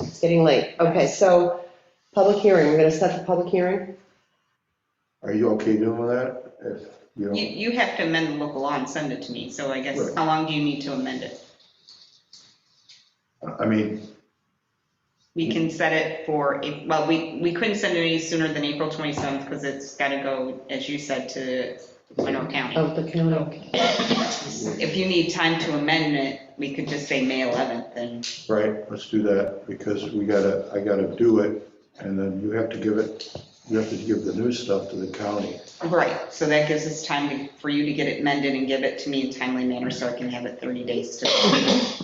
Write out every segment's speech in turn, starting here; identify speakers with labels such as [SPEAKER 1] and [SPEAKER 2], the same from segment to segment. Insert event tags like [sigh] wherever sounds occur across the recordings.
[SPEAKER 1] It's getting late. Okay, so public hearing, we're going to set the public hearing?
[SPEAKER 2] Are you okay doing that? If, you know,
[SPEAKER 3] You, you have to amend the local law and send it to me, so I guess,
[SPEAKER 2] Right.
[SPEAKER 3] how long do you need to amend it?
[SPEAKER 2] I mean,
[SPEAKER 3] We can set it for, a- well, we, we couldn't send it any sooner than April 27th, because it's got to go, as you said, to Winnebago County.
[SPEAKER 1] Of the county.
[SPEAKER 3] If you need time to amend it, we could just say May 11th, and
[SPEAKER 2] right, let's do that, because we gotta, I gotta do it, and then you have to give it, you have to give the new stuff to the county.
[SPEAKER 3] right, so that gives us time for you to get it amended and give it to me in timely manner, so I can have it 30 days to.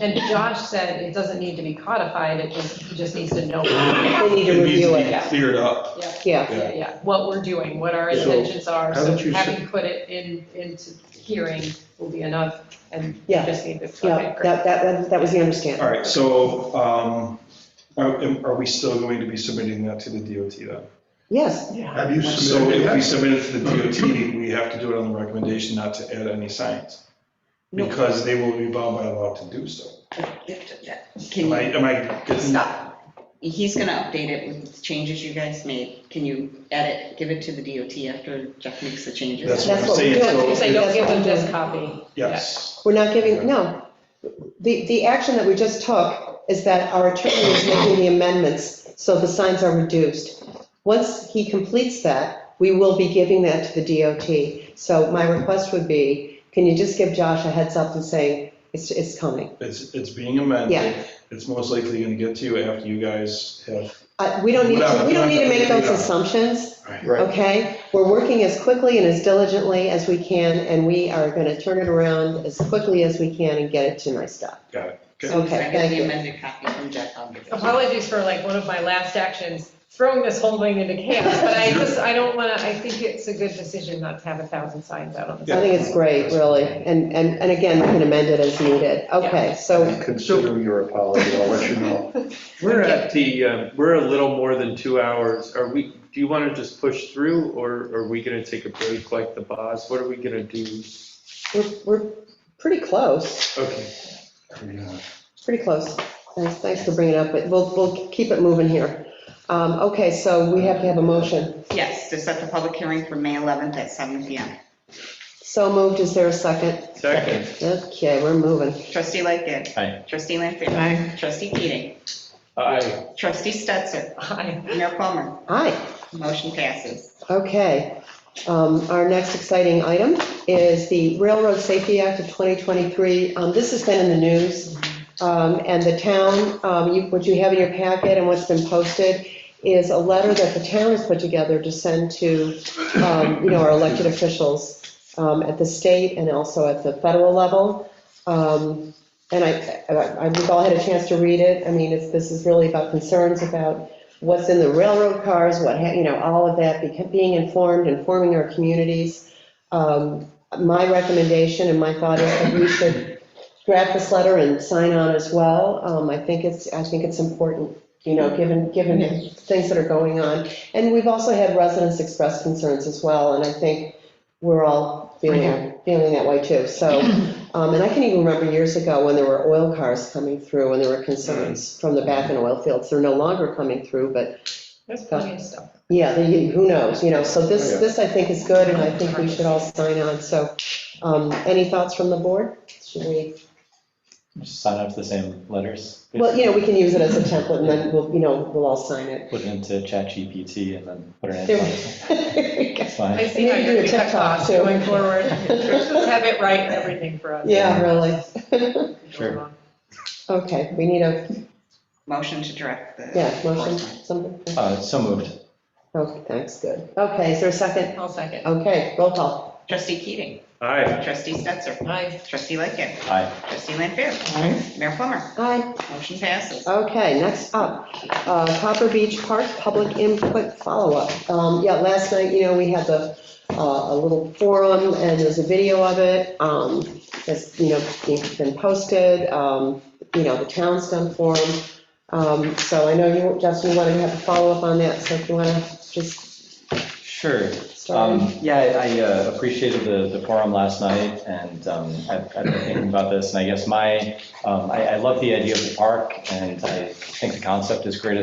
[SPEAKER 4] And Josh said it doesn't need to be codified, it just, he just needs to know,
[SPEAKER 1] They need to
[SPEAKER 5] It needs
[SPEAKER 1] review
[SPEAKER 5] to be
[SPEAKER 1] it.
[SPEAKER 5] cleared up.
[SPEAKER 1] Yeah,
[SPEAKER 5] Yeah.
[SPEAKER 4] yeah, yeah, what we're doing, what our
[SPEAKER 2] So,
[SPEAKER 4] intentions are. So
[SPEAKER 2] haven't you said-
[SPEAKER 4] having put it in, into hearing will be enough, and you
[SPEAKER 1] Yeah.
[SPEAKER 4] just need to. okay,
[SPEAKER 1] yeah,
[SPEAKER 4] great.
[SPEAKER 1] that, that, that- that was the understanding.
[SPEAKER 5] All right, so um, are are we still going to be submitting that to the DOT then?
[SPEAKER 1] Yes,
[SPEAKER 2] Have you
[SPEAKER 5] So
[SPEAKER 2] submitted
[SPEAKER 5] if we
[SPEAKER 2] that?
[SPEAKER 5] submit it to the DOT, we have to do it on the recommendation not to add any signs,
[SPEAKER 3] No.
[SPEAKER 5] because they will be bound by law to do so.
[SPEAKER 3] Can
[SPEAKER 5] Am
[SPEAKER 3] you?
[SPEAKER 5] I, am I getting?
[SPEAKER 3] Stop. He's gonna update it with the changes you guys made. Can you edit, give it to the DOT after Jeff makes the changes?
[SPEAKER 5] That's
[SPEAKER 1] That's
[SPEAKER 5] what I'm
[SPEAKER 1] what we
[SPEAKER 5] saying,
[SPEAKER 1] do.
[SPEAKER 4] You
[SPEAKER 5] so,
[SPEAKER 4] say, don't
[SPEAKER 1] That's
[SPEAKER 4] give
[SPEAKER 1] what
[SPEAKER 4] them
[SPEAKER 1] I'm
[SPEAKER 4] this
[SPEAKER 1] doing.
[SPEAKER 4] copy.
[SPEAKER 5] yes,
[SPEAKER 1] we're not giving, no. The, the action that we just took is that our attorney is making the amendments, so the signs are reduced. Once he completes that, we will be giving that to the DOT. So my request would be, can you just give Josh a heads up and say, it's, it's coming?
[SPEAKER 5] it's, it's being
[SPEAKER 1] Yeah.
[SPEAKER 5] amended. It's most likely going to get to you after you guys have.
[SPEAKER 1] Uh, We don't need to, we don't need to make those
[SPEAKER 5] Without-
[SPEAKER 1] assumptions,
[SPEAKER 2] Right,
[SPEAKER 1] okay? We're working as quickly and as diligently as we can, and we are going to turn it around as quickly as we can and get it to my staff.
[SPEAKER 5] Got it.
[SPEAKER 3] So if I
[SPEAKER 1] Okay,
[SPEAKER 3] get
[SPEAKER 1] thank
[SPEAKER 3] the
[SPEAKER 1] you.
[SPEAKER 3] amended copy from Jeff, I'll give it. to you.
[SPEAKER 4] Apologies for like one of my last actions, throwing this whole thing into chaos,
[SPEAKER 2] [laughs]
[SPEAKER 4] but I just, I don't want to, I think it's a good decision not to have a thousand signs out on the.
[SPEAKER 1] I think
[SPEAKER 4] [laughs]
[SPEAKER 1] it's great, really, and, and, and again, we can amend it as needed. Okay, so,
[SPEAKER 2] consider your apology, I'll let you know.
[SPEAKER 6] We're at the, uh, we're a little more than two hours. Are we, do you want to just push through or are we going to take a break like the boss? What are we going to do?
[SPEAKER 1] we're, we're pretty close,
[SPEAKER 6] Okay.
[SPEAKER 1] pretty close. Thanks, thanks for bringing it up, but we'll, we'll keep it moving here. Um, okay, so we have to have a motion.
[SPEAKER 3] Yes, to set the public hearing for May 11th at 7 PM.
[SPEAKER 1] So moved, is there a second?
[SPEAKER 6] Second.
[SPEAKER 1] Okay, we're moving.
[SPEAKER 3] Trustee Lightgev. Aye. Trustee Lanfair. Aye. Trustee Keating.
[SPEAKER 6] Aye.
[SPEAKER 3] Trustee Stetser.
[SPEAKER 4] Hi.
[SPEAKER 3] Mayor Plummer.
[SPEAKER 1] Aye.
[SPEAKER 3] Motion passes.
[SPEAKER 1] Okay, um, our next exciting item is the Railroad Safety Act of 2023. Um, This has been in the news, um, and the town, um, you- what you have in your packet and what's been posted is a letter that the town has put together to send to, um, you know, our elected officials um, at the state and also at the federal level. Um, And I, I- I- we've all had a chance to read it. I mean, it's- this is really about concerns about what's in the railroad cars, what, ha- you know, all of that, beca- being informed, informing our communities. Um, My recommendation and my thought is that we should draft this letter and sign on as well. Um, I think it's, I think it's important, you know, given, given the things that are going on. And we've also had residents express concerns as well, and I think we're all feeling, feeling that way too. So, um, and I can even remember years ago when there were oil cars coming through and there were concerns from the back in oil fields. They're no longer coming through, but
[SPEAKER 4] There's plenty of stuff.
[SPEAKER 1] yeah, the- who knows, you know, so this,
[SPEAKER 2] Yeah.
[SPEAKER 1] this I think is good, and I think we should all sign on, so, um, any thoughts from the board? Should we,
[SPEAKER 7] Just sign up to the same letters.
[SPEAKER 1] well, you know, we can use it as a template, and then we'll, you know, we'll all sign it. [laughs]
[SPEAKER 7] Put it into ChatGPT and then put it
[SPEAKER 1] There
[SPEAKER 7] in.
[SPEAKER 1] we go.
[SPEAKER 7] It's fine.
[SPEAKER 4] I see how
[SPEAKER 1] Maybe
[SPEAKER 4] you're
[SPEAKER 1] do a
[SPEAKER 4] gonna cut
[SPEAKER 1] TikTok,
[SPEAKER 4] costs
[SPEAKER 1] too.
[SPEAKER 4] going
[SPEAKER 1] [laughs]
[SPEAKER 4] forward. Just have it right, everything for us.
[SPEAKER 1] Yeah, really, [laughs]
[SPEAKER 7] Sure.
[SPEAKER 1] okay, we need a,
[SPEAKER 3] Motion to direct the.
[SPEAKER 1] yeah, motion,
[SPEAKER 3] enforcement.
[SPEAKER 1] something,
[SPEAKER 7] Uh, So moved.
[SPEAKER 1] okay, thanks, good, okay, is there a second?
[SPEAKER 4] I'll second.
[SPEAKER 1] Okay, roll call,
[SPEAKER 3] Trustee Keating.
[SPEAKER 6] Aye.
[SPEAKER 3] Trustee Stetser.
[SPEAKER 4] Aye.
[SPEAKER 3] Trustee Lightgev.
[SPEAKER 7] Aye.
[SPEAKER 3] Trustee Lanfair. Mayor Plummer.
[SPEAKER 1] aye.
[SPEAKER 3] Motion passes.
[SPEAKER 1] Okay, next up, uh, Copper Beach Park Public Input Follow-Up. Um, Yeah, last night, you know, we had the, uh, a little forum, and there's a video of it, um, that's, you know, being- been posted, um, you know, the town's done forum. Um, So I know you, Justin, you wanted to have a follow-up on that, so if you want to just
[SPEAKER 7] Sure.
[SPEAKER 1] started?
[SPEAKER 7] Um, Yeah, I- I uh, appreciated the, the forum last night, and um, I've I've been thinking about this, and I guess my, um, I I love the idea of the park, and I think the concept is great as